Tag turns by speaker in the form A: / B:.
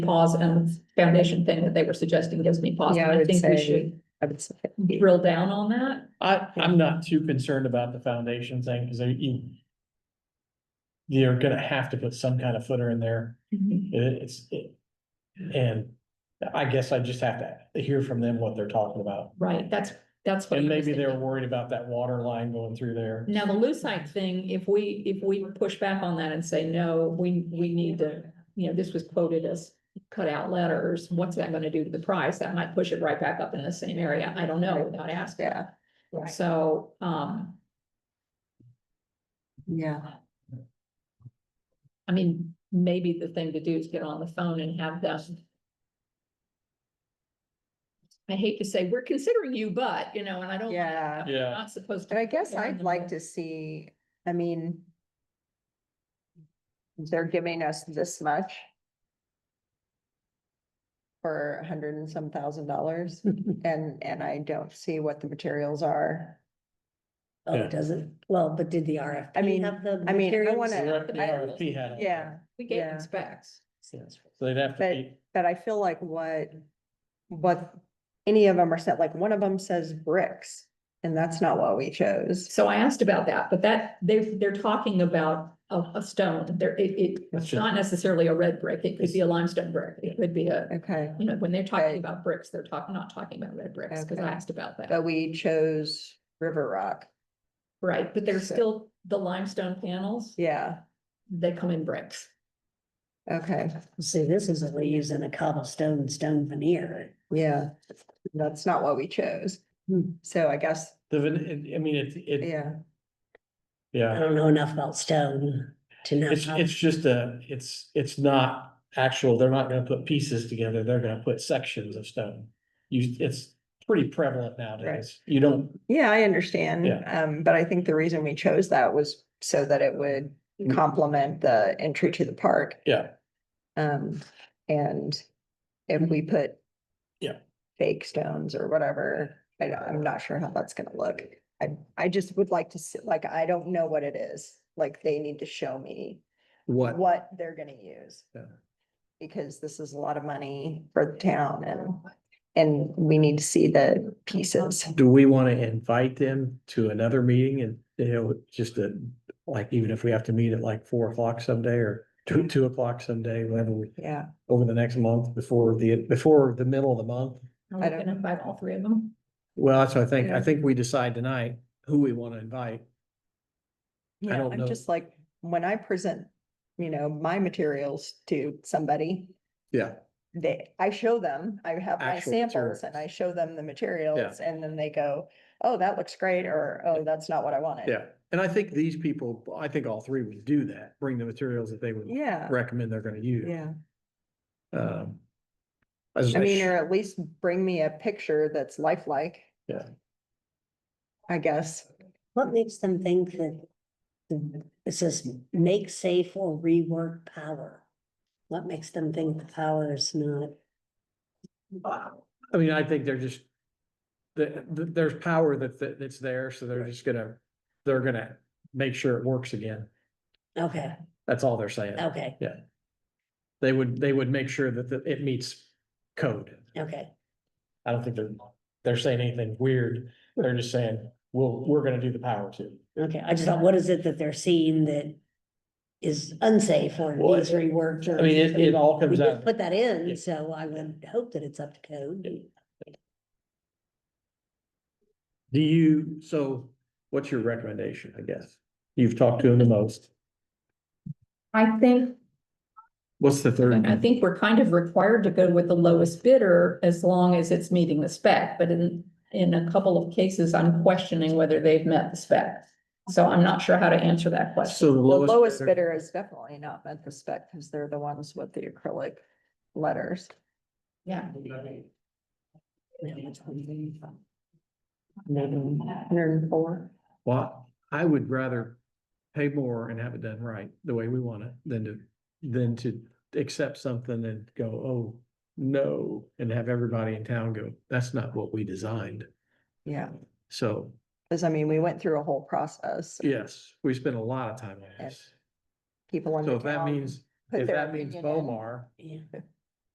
A: pause and foundation thing that they were suggesting gives me pause.
B: Yeah, I
A: and I
B: would
A: think we
B: say-
A: should
B: I would say.
A: drill down on that.
C: I, I'm not too concerned about the foundation thing, because they, you. You're gonna have to put some kind of footer in there,
B: Mm-hmm.
C: It- it's, it- and I guess I just have to hear from them what they're talking about.
A: Right, that's, that's what.
C: And
A: I was
C: maybe they're
A: thinking.
C: worried about that water line going through there.
A: Now, the lucite thing, if we, if we push back on that and say, no, we, we need to, you know, this was quoted as cut out letters, what's that gonna do to the price? That might push it right back up into the same area. I don't know without asking.
B: Yeah, right.
A: So, um,
B: Yeah.
A: I mean, maybe the thing to do is get on the phone and have them. I hate to say, we're considering you, but, you know, and I don't.
B: Yeah.
C: Yeah.
A: Not supposed to.
B: And I guess
A: Yeah,
B: I'd
A: and
B: like
A: we'll-
B: to see, I mean, they're giving us this much for a hundred and some thousand dollars and, and I don't see what the materials are.
D: Oh,
C: Yeah.
D: it doesn't, well, but did the RFP?
B: I mean-
D: have the
B: I mean, I
D: materials?
B: wanna-
C: The RFP had. all that.
B: Yeah,
A: We gave
B: Yeah.
A: them specs.
D: Sounds right.
C: So they'd have to
B: But-
C: be,
B: but I feel like what, what any of them are set, like one of them says bricks and that's not what we chose.
A: So I asked about that, but that, they're, they're talking about a, a stone, there, it, it,
C: That's
A: it's
C: just-
A: not necessarily a red brick, it could be a limestone brick, it could be a,
B: Okay,
A: you know, when they're talking
B: Right.
A: about bricks, they're talking, not talking about red bricks, because I
B: Okay.
A: asked about that.
B: but we chose river rock.
A: Right, but there's
B: So-
A: still the limestone panels,
B: Yeah,
A: they come in bricks.
B: okay,
D: See, this is what we use in a cobblestone, stone veneer.
B: yeah. That's not what we chose.
D: Hmm.
B: So I guess,
C: the, van- I mean, it, it,
B: yeah.
D: I
C: yeah,
D: don't know enough about stone to know.
C: it's,
D: how-
C: it's just a, it's, it's not actual, they're not gonna put pieces together, they're gonna put sections of stone. You, it's pretty prevalent nowadays, you don't
B: Yeah, I understand.
C: Yeah.
B: Um, but I think the reason we chose that was so that it would
C: Mm.
B: complement the entry to the park.
C: Yeah.
B: Um, and if we put.
C: Yeah.
B: Fake stones or whatever, I, don't- I'm not sure how that's gonna look. I, I just would like to see, like, I don't know what it is. Like, they need to show me
C: What?
B: what they're gonna use.
C: Yeah.
B: Because this is a lot of money for the town and, and we need to see the pieces.
C: Do we want to invite them to another meeting and, you know, just to, like, even if we have to meet at like four o'clock someday or two, two o'clock someday, whenever we,
B: Yeah.
C: over the next month before the, before the middle of the month?
A: Are
B: I
A: we
B: don't
A: gonna invite all three of them?
C: Well, that's what I think. I
B: Yeah.
C: think we decide tonight who we want to invite. I
B: Yeah,
C: don't know.
B: I'm just like, when I present, you know, my materials to somebody,
C: Yeah.
B: they, I show them, I have my
C: Actual
B: samples and
C: materials.
B: I show them the materials and then they go, oh, that looks great, or, oh, that's not what I wanted.
C: Yeah. And I think these people, I think all three would do that, bring the materials that they would
B: Yeah,
C: recommend they're going to use.
B: yeah.
C: Um, as-
B: I mean, or at least bring me a picture that's lifelike.
C: Yeah.
B: I guess,
D: What makes them think that the- it says make safe or rework power? What makes them think the power is not?
B: uh,
C: I mean, I think they're just, the, the, there's power that, that, that's there, so they're just gonna, they're gonna make sure it works again.
D: Okay,
C: That's all they're saying.
B: Oh.
D: okay,
C: They would, they would make sure that, that it meets code.
D: okay.
C: I don't think they're, they're saying anything weird. They're just saying, well, we're gonna do the power too.
D: Okay, I just thought, what is it that they're seeing that is unsafe or
C: Well,
D: needs reworked? or-
C: I mean, it, it all
D: We
C: comes
D: just
C: out,
D: put that
C: Yeah.
D: in, so I would hope that it's up to code.
C: do you, so what's your recommendation, I guess? You've talked to them the most.
A: I think
C: What's the third?
A: And I think we're kind of required to go with the lowest bidder as long as it's meeting the spec, but in, in a couple of cases, I'm questioning whether they've met the spec. So I'm not sure how to answer that question.
C: So the
B: the lowest
C: lowest.
B: bidder is definitely not met the spec, because they're the ones with the acrylic letters.
A: Yeah.
B: Hundred and four.
C: Well, I would rather pay more and have it done right, the way we want it, than to, than to accept something and go, oh, no, and have everybody in town go, that's not what we designed.
B: Yeah.
C: So,
B: Cause I mean, we went through a whole process.
C: yes, we spent a lot of time on this.
B: People in
C: So
B: the
C: if that
B: town
C: means,
B: put
C: if
B: their
C: that means
B: opinion in.
C: Bomar
D: Yeah.